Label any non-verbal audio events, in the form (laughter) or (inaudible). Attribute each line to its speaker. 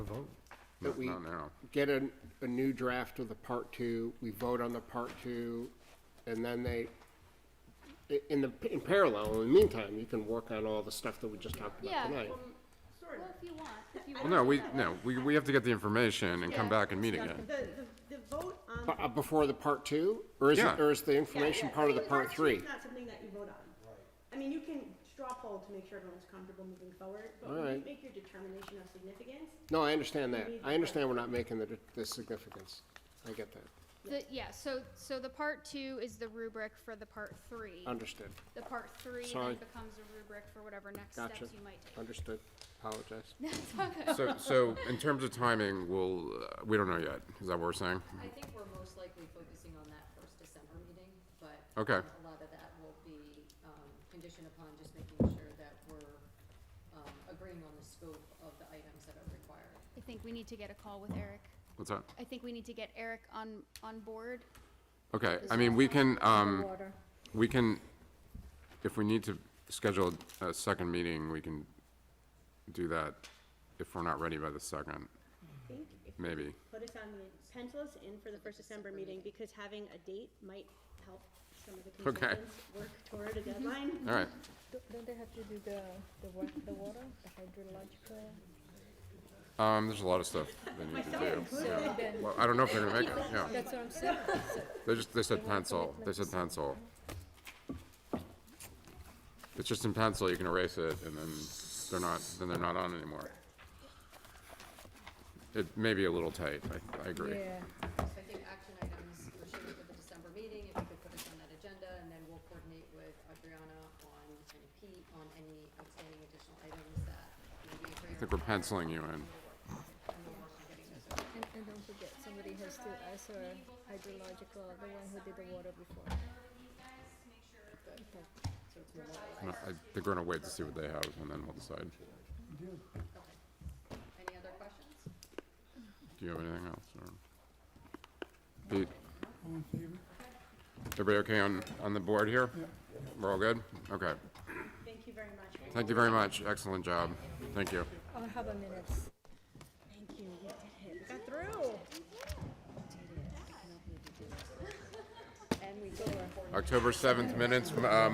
Speaker 1: a vote.
Speaker 2: That
Speaker 3: Not
Speaker 2: we-
Speaker 3: not now.
Speaker 2: get a, a new draft of the part two, we vote on the part two, and then they, i- in the, in parallel, in the meantime, you can work on all the stuff that we just talked about
Speaker 4: Yeah.
Speaker 2: tonight.
Speaker 4: Well, if you want, if you
Speaker 3: Well,
Speaker 4: want.
Speaker 3: no, we,
Speaker 4: that.
Speaker 3: no, we, we have to get the information and come
Speaker 4: Yeah.
Speaker 3: back and meet
Speaker 5: (laughs)
Speaker 3: again.
Speaker 5: The, the, the vote on.
Speaker 2: Bu- uh, Before the part two, or is it,
Speaker 3: Yeah.
Speaker 2: or is the information part of the part three?
Speaker 5: It's not something that you vote on. I mean, you can straw poll to make sure everyone's comfortable moving forward, but when you
Speaker 2: Alright.
Speaker 5: make your determination of significance,
Speaker 2: No, I understand that.
Speaker 5: need
Speaker 2: I understand we're not making the, the significance. I get that.
Speaker 4: The, yeah, so, so the part two is the rubric for the part three.
Speaker 2: Understood,
Speaker 4: The part three
Speaker 2: Sorry.
Speaker 4: then becomes a rubric for whatever next steps
Speaker 2: gotcha.
Speaker 4: you might take.
Speaker 2: Understood. Apologize.
Speaker 4: That's all good.
Speaker 3: So, so in terms of timing, we'll, uh, we don't know yet. Is that what we're saying?
Speaker 6: I think we're most likely focusing on that first December meeting, but.
Speaker 3: Okay.
Speaker 6: um, A lot of that will be, um, conditioned upon just making sure that we're, um, agreeing on the scope of the items that are required.
Speaker 4: I think we need to get a call with Eric.
Speaker 3: What's that?
Speaker 4: I think we need to get Eric on, on board.
Speaker 3: Okay, I mean, we can, um, we can, if we need to schedule a second meeting, we can do that if we're not ready by the second,
Speaker 5: I think if you
Speaker 3: maybe.
Speaker 5: put us on the, pencil us in for the first December meeting, because having a date might help some of the
Speaker 3: Okay.
Speaker 5: consultants work toward a deadline.
Speaker 2: (laughs)
Speaker 3: All right,
Speaker 7: Don't they have to do the, the wa- the water, the hydrological?
Speaker 3: um, there's a lot of stuff they need to do. yeah. Well, I don't know if they're gonna make it, yeah.
Speaker 7: That's what I'm saying.
Speaker 3: They just, they said pencil, they said pencil. It's just in pencil, you can erase it, and then they're not, then they're not on anymore. It may be a little tight, I, I agree.
Speaker 7: Yeah.
Speaker 6: So I think action items we're shooting for the December meeting, if you could put us on that agenda, and then we'll coordinate with Adriana on, and Pete on any outstanding additional items that maybe.
Speaker 3: I think we're penciling you in.
Speaker 7: And, and don't forget, somebody has to answer hydrological, the one who did the water before.
Speaker 3: No, I- They're gonna wait to see what they have, and then we'll decide.
Speaker 6: Any other questions?
Speaker 3: Do you have anything else, or? Pete? Everybody okay on, on the board here? We're all good? Okay.
Speaker 5: Thank you very much.
Speaker 3: Thank you very much, excellent job. Thank you.
Speaker 7: I'll have a minute.
Speaker 5: Thank you, we did it, we got through.
Speaker 3: October 7th minutes, m- um,